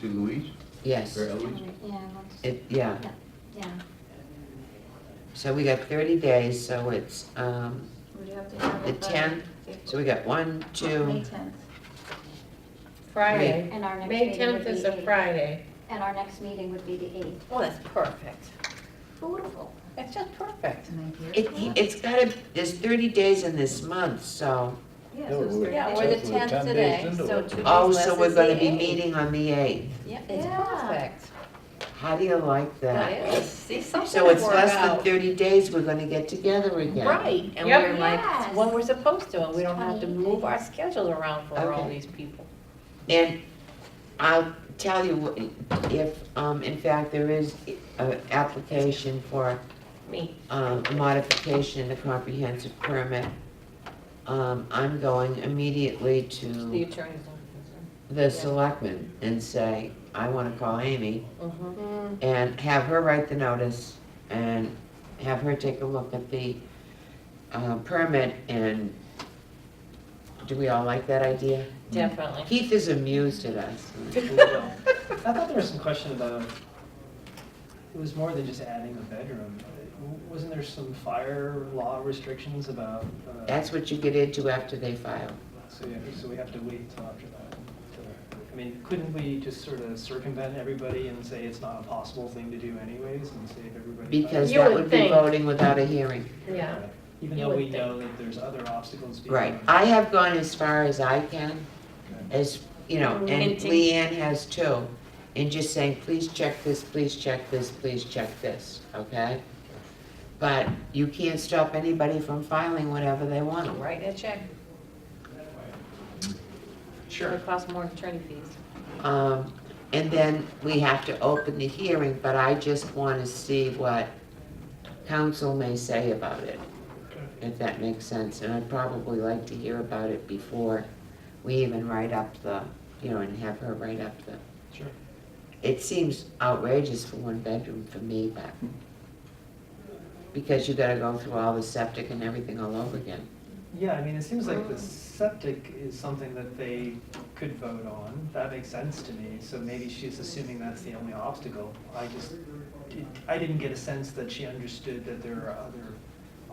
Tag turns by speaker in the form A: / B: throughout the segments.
A: to Louise?
B: Yes,
A: Or Eloise?
C: Yeah, that's-
B: it, yeah,
C: yeah,
B: so we got thirty days, so it's, um,
C: we'd have to have
B: the
C: it by.
B: tenth, so we got one,
C: May
B: two,
C: tenth,
D: Friday.
C: and our next
D: May
C: meeting would
D: tenth
C: be
D: is a
C: the,
D: Friday.
C: and our next meeting would be the eighth.
D: Oh, that's perfect.
C: Beautiful.
D: That's just perfect.
B: it, it's gotta, there's thirty days in this month, so.
E: Yeah,
A: No,
E: so it's
A: we-
E: thirty
D: Yeah,
E: days.
D: we're the
A: So we're 10
D: tenth
A: days
D: today,
A: into
D: so
A: it.
D: two days
B: Oh,
D: less
B: so we're
D: is the
B: gonna be
D: eighth.
B: meeting on the eighth,
D: Yeah, it's
C: Yeah.
D: perfect.
B: how do you like that?
D: It is. See, something
B: So
D: worked
B: it's less than
D: out.
B: thirty days, we're gonna get together again.
D: Right, and
C: Yep.
D: we're like,
C: Yes.
D: when we're supposed to, and we don't have to
C: Twenty
D: move our schedule around for all
B: Okay.
D: these people.
B: And I'll tell you, what- if, um, in fact, there is an application for
D: Me.
B: um, a modification in the comprehensive permit, um, I'm going immediately
D: The
B: to
D: attorney's
B: the selectman and say, I wanna call Amy,
D: office. Mhm.
B: and have her write the notice, and have her take a look at the, uh, permit, and do we all like that idea?
D: Definitely.
B: Keith is amused at us.
F: I thought there was some question about, it was more than just adding a bedroom. Uh, Wasn't there some fire law restrictions about? uh,
B: That's what you get into after they file.
F: So, yeah, so we have to wait till after that. till- I mean, couldn't we just sort of circumvent everybody and say it's not a possible thing to do anyways and save everybody? time?
B: Because
D: You
B: that
D: would
B: would be
D: think.
B: voting without a hearing.
D: Yeah.
F: Even
D: You
F: though we
D: would
F: know that there's other obstacles. beyond-
B: Right. I have gone as far as I can, as, you know,
D: Mm-hmm.
B: and
D: Minting.
B: Leanne has too. And just saying, please check this, please check this, please check this, okay? But you can't stop anybody from filing whatever they want.
D: Write a check.
A: Sure.
D: It costs more attorney fees.
B: Um, and then we have to open the hearing, but I just wanna see what council may say about it. if that makes sense, and I'd probably like to hear about it before we even write up the, you know, and have her write up the.
F: Sure.
B: It seems outrageous for one bedroom for me, but, because you gotta go through all the septic and everything all over again.
F: Yeah, I mean, it seems like the septic is something that they could vote on. That makes sense to me, so maybe she's assuming that's the only obstacle. I just, it- I didn't get a sense that she understood that there are other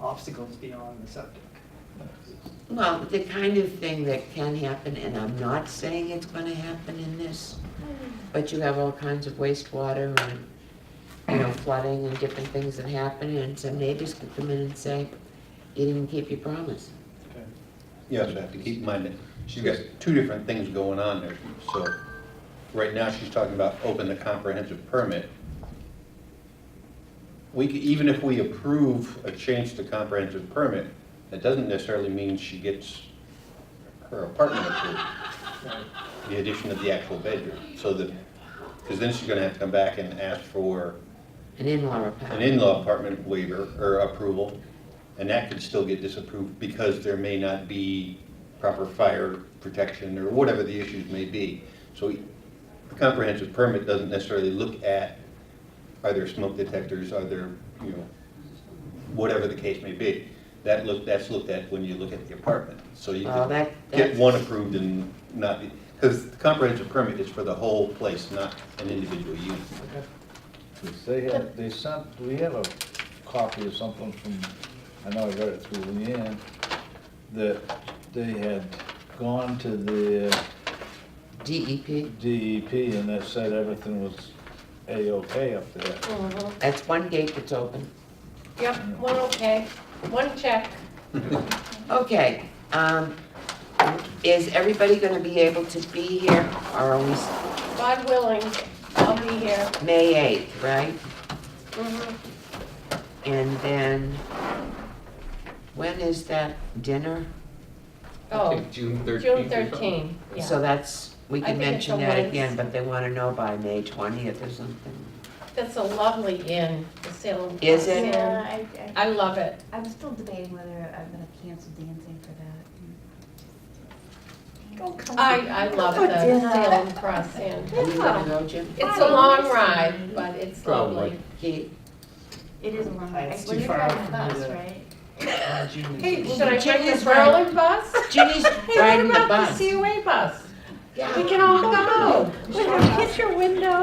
F: obstacles beyond the septic.
B: Well, the kind of thing that can happen, and I'm not saying it's gonna happen in this, but you have all kinds of wastewater and, you know, flooding and different things that happen, and some neighbors could come in and say, you didn't keep your promise.
G: You also have to keep in mind that she's got two different things going on there. So right now, she's talking about open the comprehensive permit. We, c- even if we approve a change to comprehensive permit, that doesn't necessarily mean she gets her apartment approved,
F: Right.
G: the addition of the actual bedroom. So that, because then she's gonna have to come back and ask for
B: An in-law
G: an
B: apartment.
G: in-law apartment waiver or approval, and that could still get disapproved because there may not be proper fire protection or whatever the issues may be. So the comprehensive permit doesn't necessarily look at, are there smoke detectors, are there, you know, whatever the case may be. That look, that's looked at when you look at the apartment. So you
B: Well,
G: can
B: that,
G: get
B: that's,
G: one approved and not be, because the comprehensive permit is for the whole place, not an individual unit.
F: Okay.
E: They have, they sent, we have a copy of something from, I know I got it through Leanne, that they had gone to the
B: DEP,
E: DEP and they said everything was A-OK up there.
B: that's one gate that's open.
D: Mm-hmm. Yep, one okay, one check.
B: Okay, um, is everybody gonna be able to be here, or are we, s-
D: God willing, I'll be here.
B: May eighth, right? Mm-hmm. And then, when is that dinner?
A: I
D: Oh,
A: think June thirteenth
D: June thirteenth,
B: So
D: yeah.
B: that's, we
D: I
B: can
D: think it's
B: mention
D: a
B: that again,
D: Wednesday.
B: but they wanna know by May twentieth or something.
D: That's a lovely inn, the Salem.
B: Is it?
D: Inn.
H: Yeah, I,
D: I love it.
H: I, I'm still debating whether I'm gonna cancel dancing for that.
C: Go come
D: I,
C: on.
D: I love
H: Oh,
D: the
H: dinner.
D: Salem Cross Inn.
B: Are you gonna go, Jim?
D: It's a
H: Hi,
D: long
H: nice
D: ride, but it's
A: Probably.
D: lovely.
B: Keith?
H: It is a long
F: Uh,
H: way.
F: it's
H: Well,
F: too
H: you're
F: far
H: driving
F: out
H: the
F: for me
H: bus,
F: to-
H: right?
F: Uh, June is-
D: Should I
B: Jim
D: take the
B: is right.
D: Berlin bus?
B: Ginny's
D: Hey,
B: riding the
D: What about
B: bus.
D: the COA bus? We can all go. Put a picture window.